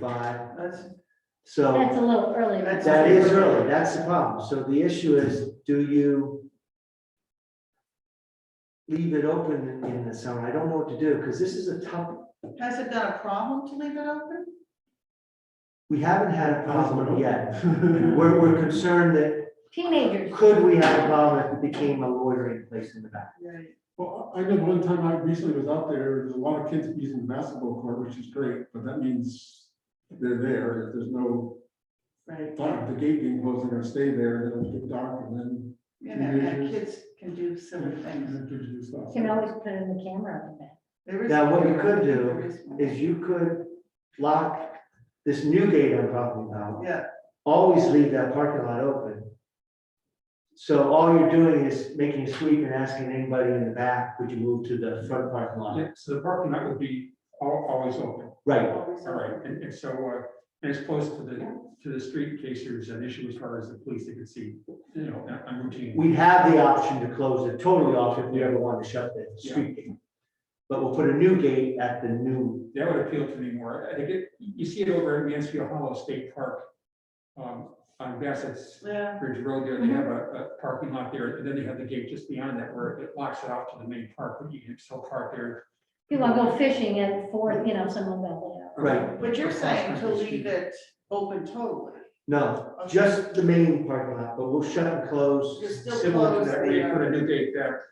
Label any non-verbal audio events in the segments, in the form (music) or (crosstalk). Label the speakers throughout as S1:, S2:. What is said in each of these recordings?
S1: forty-five.
S2: That's,
S1: So
S3: That's a little early.
S2: That's-
S1: that is early, that's the problem. So the issue is, do you leave it open in- in the summer? I don't know what to do, because this is a tough,
S2: has it been a problem to leave it open?
S1: we haven't had a problem
S4: (laughs)
S1: yet.
S5: (laughs)
S1: We're,
S4: We're,
S1: we're concerned that
S3: Teenagers.
S1: could we have a problem if it became a loitering place in the back?
S2: Right.
S4: Well, I know one time I recently was out there, there's a lot of kids using the basketball court, which is great, but that means they're there, if there's no,
S2: Right,
S4: dark, the gate being closed, they're gonna stay there, then it'll get dark, and then
S2: you know, and kids can do silly things.
S4: that gives you stuff.
S3: You Can always put in the camera on the back.
S2: There is-
S1: Now, what you could do
S2: there is one.
S1: Is you could lock this new gate I'm talking about,
S2: Yeah,
S1: always leave that parking lot open. So all you're doing is making a sweep and asking anybody in the back, would you move to the front parking lot?
S5: Yeah, so the parking lot would be al- always open,
S1: Right,
S2: always
S5: all right, and, and so, uh, and it's close to the, to the street in case there's an issue as far as the police, they could see, you know, on- on routine.
S1: we have the option to close it totally off if we ever want to shut the street gate. But we'll put a new gate at the new,
S5: That would appeal to me more, I think it, you see it over at Mansfield Hollow State Park, um, on Bassett's
S2: Yeah,
S5: Bridge Road there, they have a, a parking lot there, and then they have the gate just beyond that where it locks it off to the main park, but you can still park there.
S3: People go fishing at four, you know, someone will
S1: Right.
S2: but you're saying to leave it open totally.
S1: no, just the main parking lot, but we'll shut and close.
S2: You're still
S1: similar to
S2: closed
S1: that.
S5: That way, you put a new gate there,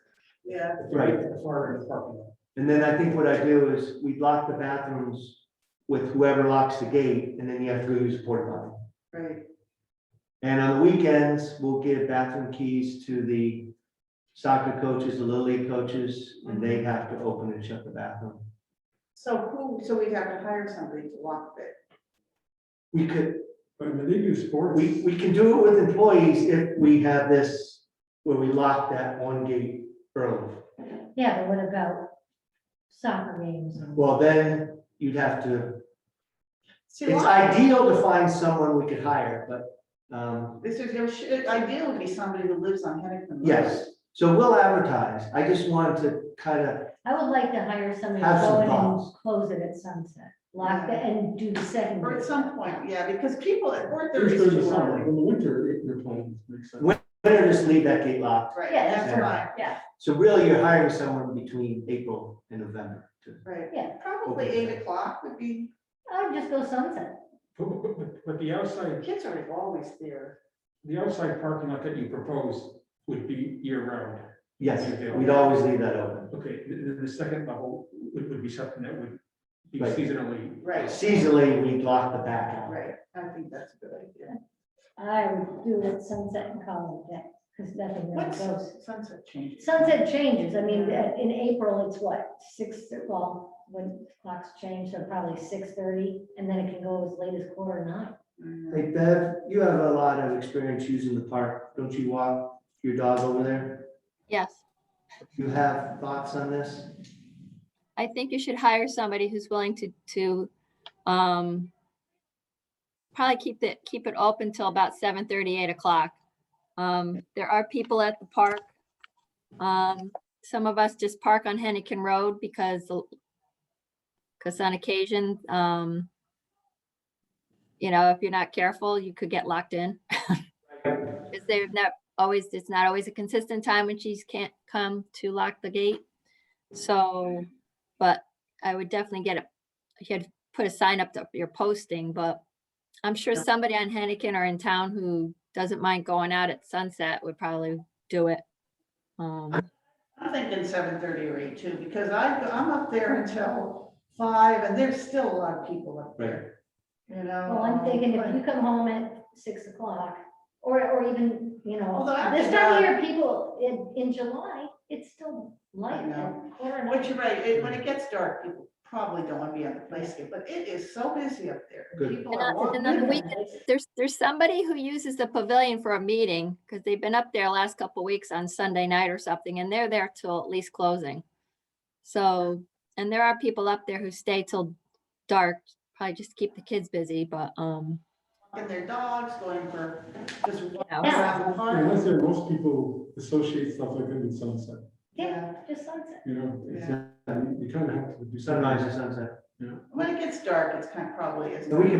S2: Yeah,
S1: Right.
S5: far in the parking lot.
S1: And then I think what I do is we lock the bathrooms with whoever locks the gate, and then you have to go use a porta potty.
S2: right,
S1: And on the weekends, we'll give bathroom keys to the soccer coaches, the little league coaches, and they have to open and shut the bathroom.
S2: so who, so we'd have to hire somebody to lock it.
S1: We could,
S4: But I mean, they do sports.
S1: we, we can do it with employees if we have this, where we lock that one gate early.
S3: go there. Yeah, but what about soccer games? and-
S1: Well, then you'd have to,
S2: See,
S1: it's
S2: lock-
S1: ideal to find someone we could hire, but, um,
S2: This is, it should- ideal would be somebody who lives on Hennepin. Road.
S1: Yes, so we'll advertise. I just wanted to kind of,
S3: I would like to hire somebody
S1: Have
S3: to
S1: some
S3: go in and
S1: thoughts.
S3: close it at sunset, lock it and do second.
S2: Or at some point, yeah, because people at four
S4: There's
S2: thirty is
S4: during the
S2: too
S4: summer,
S2: early.
S4: in the winter, it- your plans makes sense.
S1: When- better just leave that gate locked.
S2: Right,
S3: Yeah, that's
S2: that's
S3: right,
S2: fine,
S3: yeah,
S1: So really, you're hiring someone between April and November. to-
S2: right.
S3: yeah.
S2: Probably eight o'clock would be,
S3: I'd just go sunset.
S5: But- but- but- but the outside
S2: kids are always there.
S5: The outside parking lot that you propose would be year round.
S1: Yes, we'd always leave that open.
S5: Okay, the, the- the second level would, would be something that would be
S1: Right.
S5: seasonally.
S2: Right,
S1: Seasonally, we'd lock the back out.
S2: right. I think that's a good idea.
S3: I would do it sunset and call it a day, because nothing really
S2: What's
S3: goes.
S2: sunset change?
S3: Sunset changes, I mean, uh, in April, it's what, six, well, when clocks change, so probably six thirty, and then it can go as late as quarter to nine.
S2: Mm,
S1: Hey Bev, you have a lot of experience using the park. Don't you walk your dog over there?
S6: Yes,
S1: You have thoughts on this?
S6: I think you should hire somebody who's willing to, to, um, probably keep it, keep it open till about seven thirty, eight o'clock. Um, there are people at the park. Um, some of us just park on Hennecken Road because, because on occasion, um, you know, if you're not careful, you could get locked in. Is there not always, it's not always a consistent time when she's can't come to lock the gate. So, but I would definitely get a, you had to put a sign up to your posting, but I'm sure somebody on Hennecken or in town who doesn't mind going out at sunset would probably do it. Um,
S2: I'm thinking seven thirty or eight too, because I, I'm up there until five and there's still a lot of people up there. You know?
S3: Well, I'm thinking if you
S2: but-
S3: come home at six o'clock, or, or even, you know,
S2: Although after
S3: this time
S2: that-
S3: of year, people, in, in July, it's still light.
S2: I know.
S3: at quarter to
S2: But
S3: nine.
S2: you're right, it- when it gets dark, people probably don't want to be on the playscape, but it is so busy up there.
S1: Good.
S2: People
S6: And
S2: are
S6: on- and
S2: walking.
S6: on the
S3: Yeah.
S6: weekends, there's, there's somebody who uses the pavilion for a meeting, because they've been up there last couple weeks on Sunday night or something, and they're there till at least closing. So, and there are people up there who stay till dark, probably just to keep the kids busy, but, um,
S2: walking their dogs, going for, just walking
S6: Yeah.
S2: around the
S4: And
S2: park.
S4: that's where most people associate stuff like that with sunset,
S3: Yeah, just sunset.
S4: you know, it's,
S2: Yeah.
S4: you kind of have to do. something.
S1: Sunrise or sunset?
S2: When it gets dark, it's kind of probably is.
S1: And we can